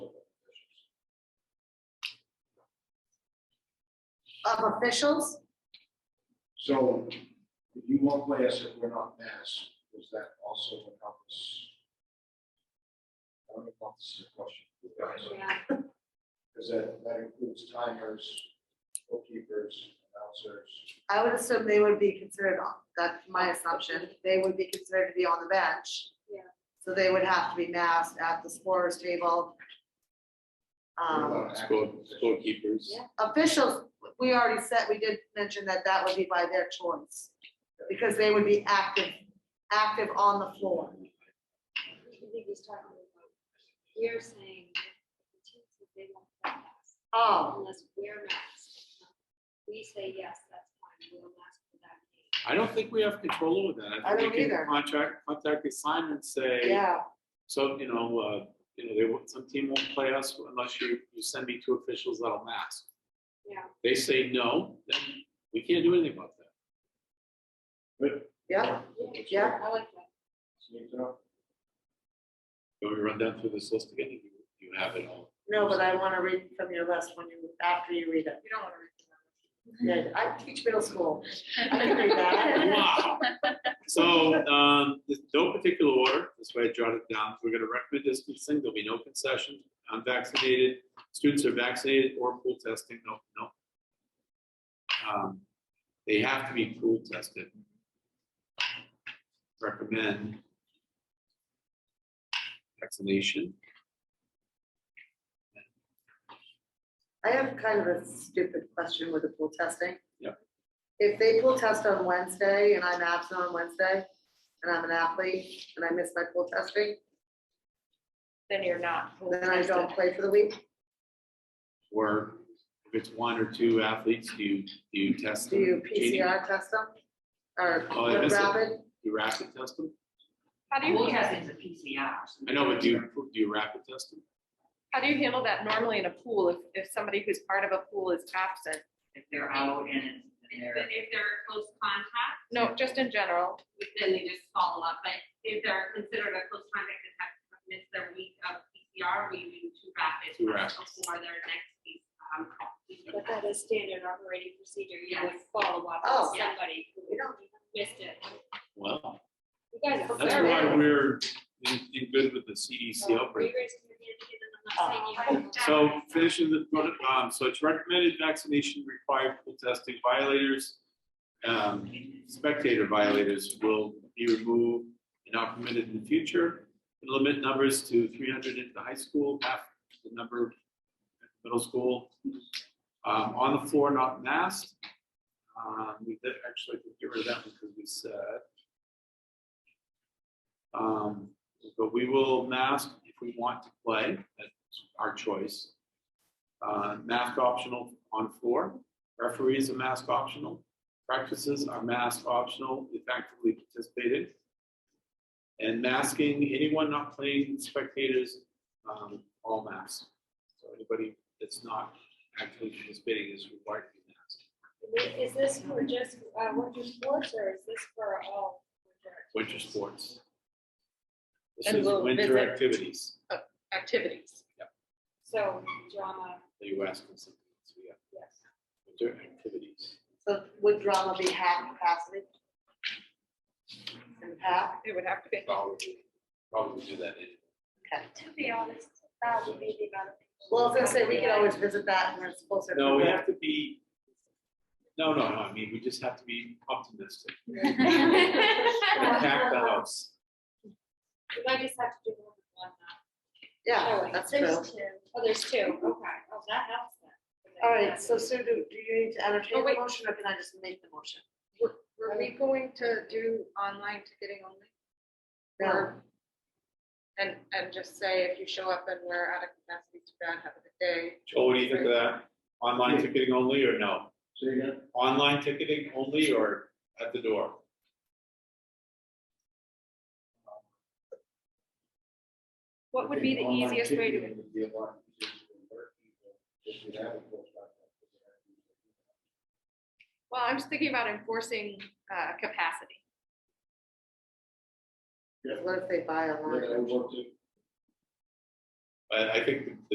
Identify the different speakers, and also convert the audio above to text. Speaker 1: of officials?
Speaker 2: So if you won't play us if we're not mass, does that also encompass? I don't know if this is a question for you guys,
Speaker 1: Yeah.
Speaker 2: because that, that includes timers, bookkeepers, announcers.
Speaker 1: I would assume they would be considered, on that's my assumption, they would be considered to be on the bench.
Speaker 3: Yeah.
Speaker 1: So they would have to be masked at the scorer's table. Um,
Speaker 4: Score, scorekeepers.
Speaker 3: Yeah.
Speaker 1: officials, we already said, we did mention that that would be by their choice, because they would be active, active on the floor.
Speaker 3: I think he's talking about, we're saying that the team says they won't play mask
Speaker 1: Oh,
Speaker 3: unless we're masked. We say, yes, that's fine, we'll mask for that game.
Speaker 4: I don't think we have control over that.
Speaker 1: I
Speaker 4: think
Speaker 1: don't
Speaker 4: we can
Speaker 1: either.
Speaker 4: Contract, contact the assignment, say,
Speaker 1: yeah,
Speaker 4: so, you know, uh, you know, they, won't- some team won't play us unless you, you send me two officials that'll mask.
Speaker 3: Yeah.
Speaker 4: They say no, then we can't do anything about that.
Speaker 1: yeah, Yeah.
Speaker 3: I like that.
Speaker 2: Sneak it up.
Speaker 4: Can we run down through this list again? You, you have it all.
Speaker 1: no, but I wanna read from your list when you, after you read it. You don't wanna read. Yeah, I teach middle school, I can read that.
Speaker 4: Wow. So, um, there's no particular order, that's why I jotted it down. We're gonna recommend distancing, there'll be no concession. Unvaccinated, students are vaccinated or pool testing, no, no. Um, They have to be pool tested. Recommend vaccination.
Speaker 1: I have kind of a stupid question with the pool testing.
Speaker 4: Yep.
Speaker 1: If they pool test on Wednesday and I'm absent on Wednesday, and I'm an athlete, and I miss my pool testing,
Speaker 5: then you're not. full
Speaker 1: then I don't
Speaker 5: tested.
Speaker 1: play for the week,
Speaker 4: Or if it's one or two athletes, do you, do you test
Speaker 1: do
Speaker 4: them?
Speaker 1: you
Speaker 4: Jeannie?
Speaker 1: PCR test them? Or
Speaker 4: Oh, I missed it.
Speaker 1: rapid?
Speaker 4: You rapid test them?
Speaker 5: How do
Speaker 6: Pool
Speaker 5: you,
Speaker 6: testing's a PCR.
Speaker 4: I know, but do you, do you rapid test them?
Speaker 5: how do you handle that normally in a pool if, if somebody who's part of a pool is absent?
Speaker 6: If they're out and it's- and they're.
Speaker 7: But if they're close contact,
Speaker 5: No, just in general.
Speaker 7: then they just follow up, but if they're considered a close contact and have missed their week of PCR, we do two rapid
Speaker 4: Two
Speaker 7: tests
Speaker 4: rapids.
Speaker 7: before their next week. um, call.
Speaker 3: But that is standard operating procedure, you would
Speaker 7: Yes.
Speaker 3: follow up
Speaker 1: Oh.
Speaker 3: with somebody who
Speaker 1: We don't
Speaker 3: missed it.
Speaker 4: Well,
Speaker 3: You guys. are
Speaker 4: that's
Speaker 3: very-
Speaker 4: why we're in, in good with the CDC
Speaker 3: Oh,
Speaker 4: outbreak.
Speaker 3: raised your hand again, and I'm not saying you-
Speaker 4: So finishing the, um, so it's recommended vaccination required pool testing violators. Um, spectator violators will be removed and not permitted in the future. And Limit numbers to three hundred at the high school, half the number at the middle school. Um, on the floor, not masked. Um, we did actually get rid of that one because we said. Um, but we will mask if we want to play, That's our choice. Uh, mask optional on floor, referees are mask optional, practices are mask optional if actively participated. And masking, anyone not playing, spectators, um, all masks. So anybody that's not actively participating is required to be masked.
Speaker 3: Is this for just uh, winter sports or is this for all? winter?
Speaker 4: Winter sports. This
Speaker 5: And
Speaker 4: is
Speaker 5: we'll
Speaker 4: winter
Speaker 5: visit-
Speaker 4: activities,
Speaker 5: Activities.
Speaker 3: So drama,
Speaker 4: that you asked us, yeah,
Speaker 3: yes.
Speaker 4: winter activities.
Speaker 1: So would drama be half capacity? And half,
Speaker 5: It would have to be.
Speaker 4: Probably, probably do that in
Speaker 3: To be honest, that would be the amount of. people-
Speaker 1: well, I was gonna say, we could always visit that when it's closer. to
Speaker 4: No, we
Speaker 1: the-
Speaker 4: have to be, no, no, no, I mean, we just have to be optimistic, and pack the house.
Speaker 3: You might just have to do more than one now.
Speaker 1: Yeah, that's true.
Speaker 3: There's two. Oh, there's two, okay, oh, that helps then.
Speaker 1: All right, so Sue, do, do you need to entertain
Speaker 5: Oh,
Speaker 1: the
Speaker 5: wait.
Speaker 1: motion, or can I just make the motion?
Speaker 5: Were we going to do online ticketing only?
Speaker 1: No,
Speaker 5: Or- And, and just say if you show up and we're out of capacity to bad, have a good day.
Speaker 4: Joel, what do you think of that? Online ticketing only or no?
Speaker 2: So you're gonna,
Speaker 4: Online ticketing only or at the door?
Speaker 5: What would be the easiest way to?
Speaker 2: Would be a lot easier to convert people if you have a full time.
Speaker 5: Well, I'm just thinking about enforcing uh, capacity.
Speaker 1: what if they buy a line?
Speaker 2: Yeah, I worked it.
Speaker 4: But I think the